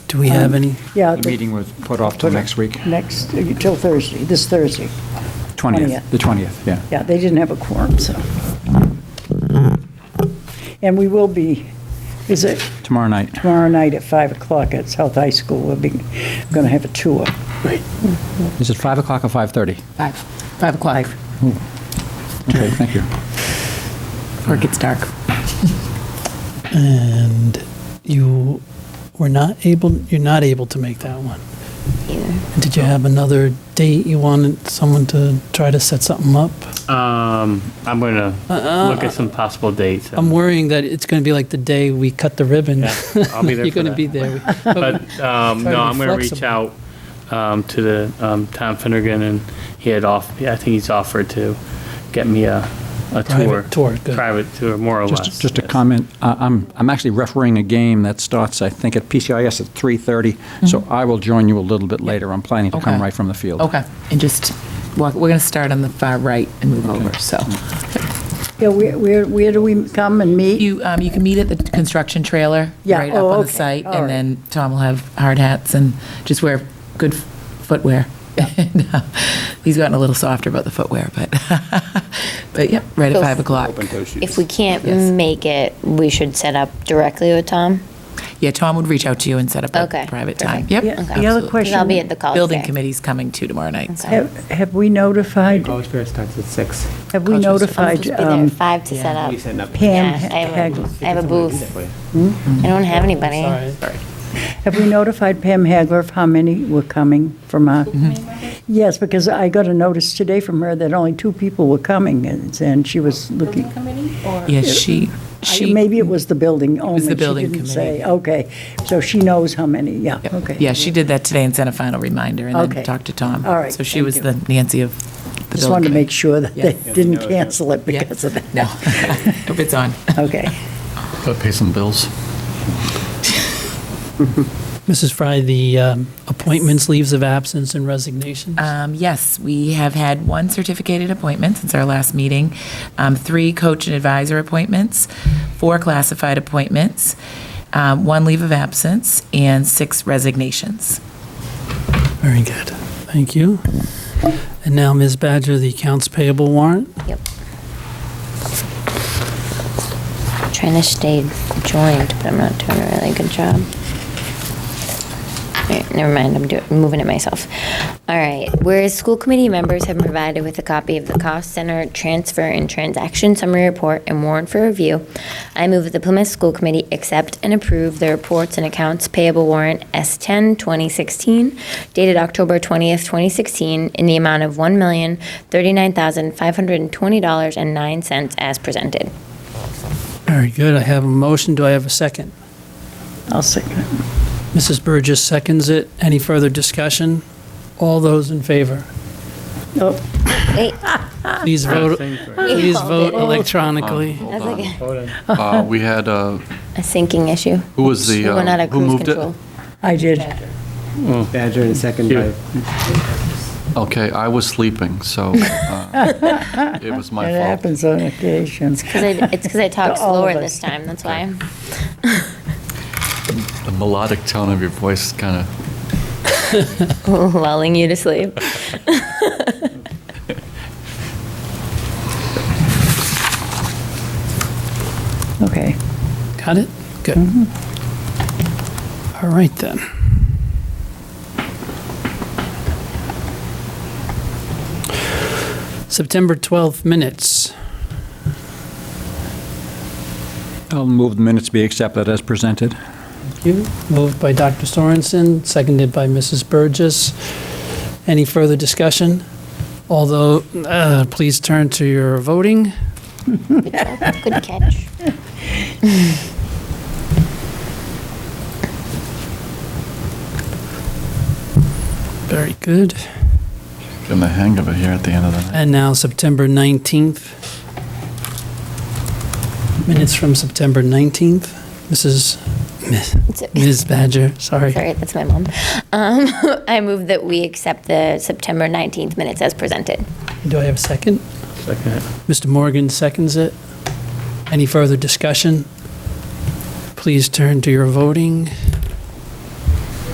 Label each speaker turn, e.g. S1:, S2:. S1: Do we have any?
S2: Um, Yeah.
S3: The meeting was put off till next week,
S2: Next, till Thursday, this Thursday.
S3: 20th, the 20th, yeah.
S2: Yeah, they didn't have a quorum, so. And we will be, is it
S3: Tomorrow night.
S2: tomorrow night at 5 o'clock at South High School? We'll be, going to have a tour.
S3: Is it 5 o'clock or 5:30?
S4: Five, five o'clock,
S3: Okay, thank you.
S4: before it gets dark.
S1: And you were not able, you're not able to make that one. Did you have another date you wanted someone to try to set something up?
S5: Um, I'm going to
S1: Uh-uh.
S5: look at some possible dates.
S1: I'm worrying that it's going to be like the day we cut the ribbon.
S5: Yeah, I'll be there
S1: You're
S5: for
S1: going to
S5: that.
S1: be there.
S5: But,
S1: Try to
S5: um, no,
S1: be
S5: I'm going to reach out
S1: flexible.
S5: um, to the um, Tom Finnegan, and he had off, I think he's offered to get me a, a
S1: Private
S5: tour.
S1: tour, good.
S5: Private tour, more or less.
S3: Just, just a
S5: yes.
S3: comment, I- I'm, I'm actually refereeing a game that starts, I think, at PCIS at 3:30, so I will join you a little bit later. I'm planning to come
S4: Okay.
S3: right from the field.
S4: Okay, and just, walk. we're going to start on the far right and move over, so.
S2: Yeah, where, where where do we come and meet?
S4: You, um, you can meet at the construction trailer,
S2: Yeah,
S4: right up
S2: oh,
S4: on the
S2: okay,
S4: site,
S2: all right.
S4: and then Tom will have hard hats and just wear good footwear. And, uh, He's gotten a little softer about the footwear, but, but yep, right at
S6: Feels-
S4: five o'clock.
S6: If we can't
S4: Yes.
S6: make it, we should set up directly with Tom.
S4: Yeah, Tom would reach out to you and set up
S6: Okay,
S4: a private time.
S6: perfect.
S4: Yep.
S2: Yeah, The other
S4: absolutely.
S6: Because I'll be
S2: question,
S6: at the college.
S4: Building
S6: fair.
S4: committee's coming too tomorrow night, so.
S2: have have we notified,
S7: College fair starts at six.
S2: have we
S4: Culture Fair.
S6: I'm
S2: notified
S6: supposed to be there
S2: um,
S6: at five to set up.
S7: We set up.
S2: Pam?
S6: Yeah, I have
S2: Hag-
S6: a- I have a booth.
S7: That way.
S6: I don't have anybody.
S1: Sorry.
S2: Have we notified Pam Hagler of how many were coming from our? Yes, because I got a notice today from her that only two people were coming, and and she was looking,
S4: Yeah, she, she.
S2: maybe it was the building only.
S4: the
S2: She
S4: building
S2: didn't
S4: committee.
S2: say. Okay, so she knows how many, yeah,
S4: Yep.
S2: okay.
S4: Yeah, she did that today and sent a final reminder and
S2: Okay.
S4: then talked to Tom.
S2: All right,
S4: So she
S2: thank
S4: was
S2: you.
S4: the Nancy of the building.
S2: Just wanted to make sure that they
S4: Yeah.
S2: didn't cancel it
S4: Yeah.
S2: because of that.
S4: No, hope it's on.
S2: Okay.
S8: Gotta pay some bills.
S1: Mrs. Fry, the um, appointments, leaves of absence, and resignations?
S4: Um, Yes, we have had one certificated appointment since our last meeting, um, three coach and advisor appointments, four classified appointments, um, one leave of absence, and six resignations.
S1: Very good. Thank you. And now, Ms. Badger, the accounts payable warrant.
S6: Yep. Trying to stay joined, but I'm not doing a really good job. All right, never mind, I'm doing, moving it myself. All right, whereas school committee members have been provided with a copy of the cost center transfer and transaction summary report and warrant for review, I move that the Plymouth School Committee accept and approve the reports and accounts payable warrant S10 2016 dated October 20th, 2016 in the amount of $1,039,520.09 as presented.
S1: Very good. I have a motion. Do I have a second?
S2: I'll second it.
S1: Mrs. Burgess seconds it. Any further discussion? All those in favor,
S2: Oh,
S6: Wait,
S1: please vote,
S5: Same thing.
S1: please
S6: Oh,
S1: vote
S6: did Ah. it?
S1: electronically.
S6: That's like a-
S8: Uh, We had, uh,
S6: a sinking issue.
S8: who was
S6: We
S8: the,
S6: were not
S8: uh,
S6: at
S8: who
S6: cruise
S8: moved it?
S6: control.
S2: I did.
S7: Badger and second by
S8: Okay, I was sleeping, so uh, it was my
S2: It
S8: fault.
S2: happens on occasion.
S6: Because I, it's because I talked
S2: all of
S6: slower
S2: us.
S6: this time, that's why.
S8: The melodic tone of your voice kind of,
S6: Lulling you to sleep.
S2: Okay.
S1: Got it? Good. All right, then. September 12th minutes.
S3: I'll move the minutes be accepted as presented.
S1: You, moved by Dr. Sorensen, seconded by Mrs. Burgess. Any further discussion? Although, uh, please turn to your voting.
S6: Good job. Good catch.
S1: Very good.
S8: getting the hang of it here at the end of the night.
S1: And now September 19th. Minutes from September 19th. Mrs.,
S6: It's-
S1: Ms. Badger, sorry.
S6: Sorry, that's my mom. Um, I move that we accept the September 19th minutes as presented.
S1: Do I have a second?
S5: Second.
S1: Mr. Morgan seconds it. Any further discussion? Please turn to your voting.